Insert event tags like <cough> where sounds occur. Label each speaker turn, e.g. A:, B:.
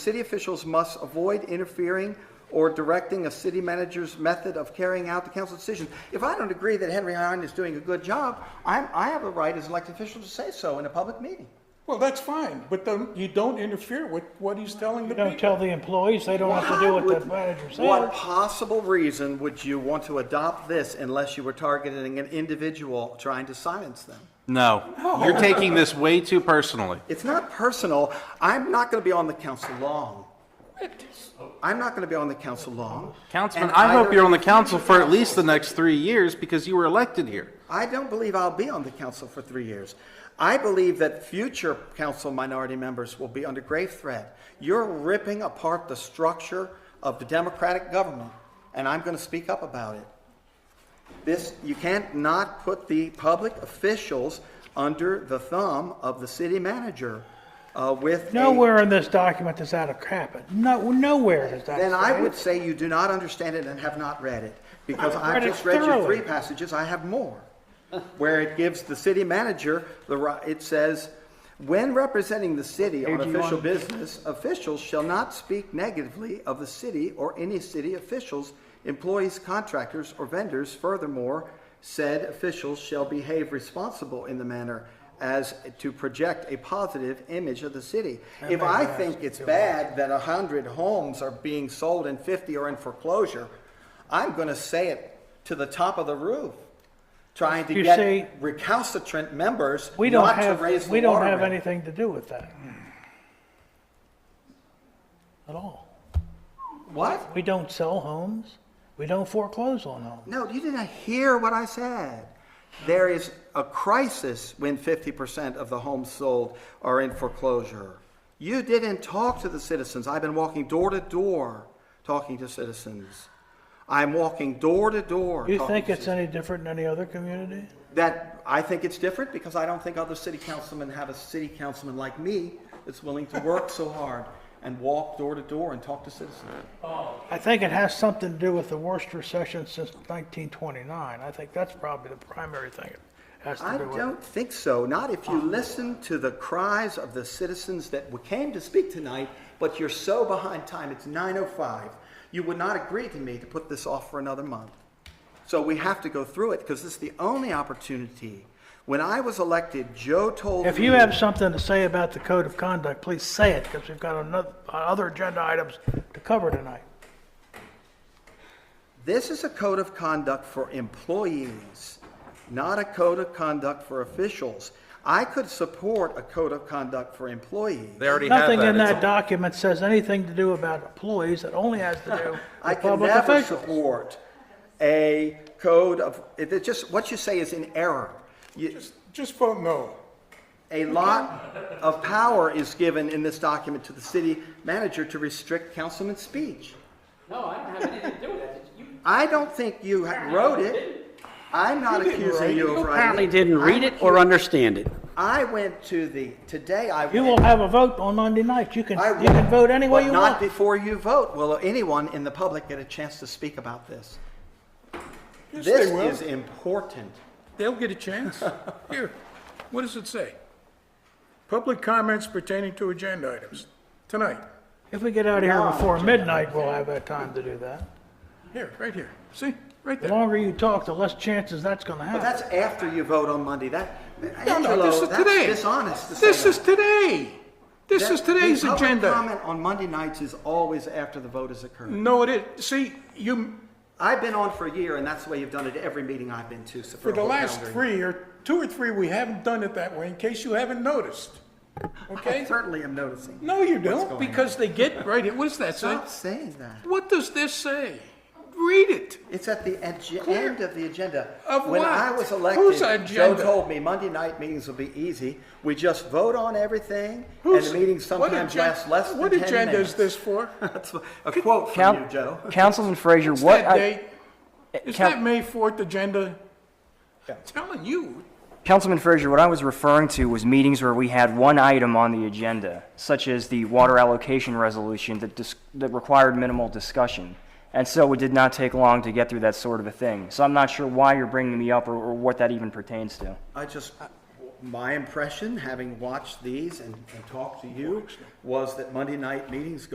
A: City officials must avoid interfering or directing a city manager's method of carrying out the council decisions. If I don't agree that Henry Hine is doing a good job, I'm, I have a right as an elected official to say so in a public meeting.
B: Well, that's fine, but then you don't interfere with what he's telling the
C: You don't
B: people.
C: tell the employees, they don't have to do what the
A: Would-
C: manager
A: What
C: says.
A: possible reason would you want to adopt this unless you were targeting an individual trying to silence them?
D: No, you're taking this way too personally.
A: It's not personal. I'm not going to be on the council long. I'm not going to be on the council long.
D: Councilman,
A: And
D: I hope
A: either-
D: you're on the council for at least the next three years because you were elected here.
A: I don't believe I'll be on the council for three years. I believe that future council minority members will be under grave threat. You're ripping apart the structure of the democratic government, and I'm going to speak up about it. This, you can't not put the public officials under the thumb of the city manager uh, with a-
C: Nowhere in this document does that happen. No, nowhere does that.
A: Then I
C: say.
A: would say you do not understand it and have not read it, because
C: I've
A: I've
C: read it
A: just read you
C: thoroughly.
A: three passages, I have more, where it gives the city manager the right, it says, "When representing the city on official business, officials shall not speak negatively of the city or any city officials, employees, contractors, or vendors. Furthermore, said officials shall behave responsible in the manner as to project a positive image of the city. If I think it's bad that a hundred homes are being sold and fifty are in foreclosure, I'm gonna say it to the top of the roof, trying to
C: You see-
A: get recalcitrant members
C: We don't
A: not to raise
C: have,
A: the
C: we don't
A: water
C: have
A: rate.
C: anything to do with that. At all.
A: What?
C: We don't sell homes. We don't foreclose on homes.
A: No, you didn't hear what I said. There is a crisis when fifty percent of the homes sold are in foreclosure. You didn't talk to the citizens. I've been walking door to door talking to citizens. I'm walking door to door.
C: You
A: talking
C: think
A: to
C: it's any different than any other community?
A: That, I think it's different because I don't think other city councilmen have a city councilman like me that's willing to work so hard and walk door to door and talk to citizens.
C: I think it has something to do with the worst recession since 1929. I think that's probably the primary thing it has to
A: I
C: do with.
A: don't think so, not if you listen to the cries of the citizens that came to speak tonight, but you're so behind time, it's 9:05. You would not agree to me to put this off for another month. So we have to go through it because this is the only opportunity. When I was elected, Joe told me.
C: If you have something to say about the code of conduct, please say it, because we've got another, other agenda items to cover tonight.
A: This is a code of conduct for employees, not a code of conduct for officials. I could support a code of conduct for employees.
E: They already have that.
C: Nothing in
E: It's
C: that document says anything to do about employees, it only has to do
A: <laughs> I
C: with
A: can
C: public
A: never
C: officials.
A: support a code of, it, it just, what you say is in error. You,
B: Just- Just vote no.
A: a lot of power is given in this document to the city manager to restrict councilman's speech.
F: No, I don't have anything to do with that. You
A: I don't think you ha- wrote it. I'm not accusing you of writing
F: apparently
A: it.
F: didn't read it or understand it.
A: I went to the, today I went.
C: You will have a vote on Monday night, you can,
A: I
C: you can
A: will,
C: vote any way
A: but
C: you
A: Not
C: want.
A: before you vote will anyone in the public get a chance to speak about this.
B: Yes,
A: This
B: they will.
A: is important.
B: They'll get a
A: <laughs>
B: chance. Here, what does it say? Public comments pertaining to agenda items, tonight.
C: If we get out of here before midnight, we'll have that time to do that.
B: Here, right here. See, right
C: The
B: there.
C: longer you talk, the less chances that's gonna
A: But
C: happen.
A: that's after you vote on Monday. That,
B: No, no,
A: Angelo,
B: this is
A: that's
B: today.
A: dishonest to say
B: This
A: that.
B: is today. This
A: That-
B: is today's
A: the public
B: agenda.
A: comment on Monday nights is always after the vote has occurred.
B: No, it is. See, you,
A: I've been on for a year, and that's the way you've done it at every meeting I've been to. so
B: for
A: a
B: the
A: whole
B: last
A: calendar
B: three or, two or three, we haven't done it that way, in case you haven't noticed.
A: year. I
B: Okay?
A: certainly am noticing.
B: No, you
A: going
B: don't, because they get right here. What does that say?
A: Stop saying that.
B: What does this say? Read it.
A: It's at the ag-
B: Clear.
A: end of the agenda.
B: Of
A: when
B: what?
A: I was elected,
B: Whose
A: Joe
B: agenda?
A: told me Monday night meetings will be easy. We just vote on everything,
B: Who's-
A: and the meetings
B: what
A: sometimes
B: agen-
A: last less than
B: What
A: 10
B: agenda is
A: minutes.
B: this for?
A: <laughs> That's a quote from you,
G: Count-
A: Joe.
G: Councilman Frazier,
B: Is
G: what,
B: that
G: I- eh,
B: date? Is
G: Cal-
B: that May 4th agenda? I'm telling you,
G: Councilman Frazier, what I was referring to was meetings where we had one item on the agenda, such as the water allocation resolution that dis, that required minimal discussion. And so it did not take long to get through that sort of a thing. So I'm not sure why you're bringing me up or, or what that even pertains to.
A: I just, my impression, having watched these and, and talked to you, was that Monday night meetings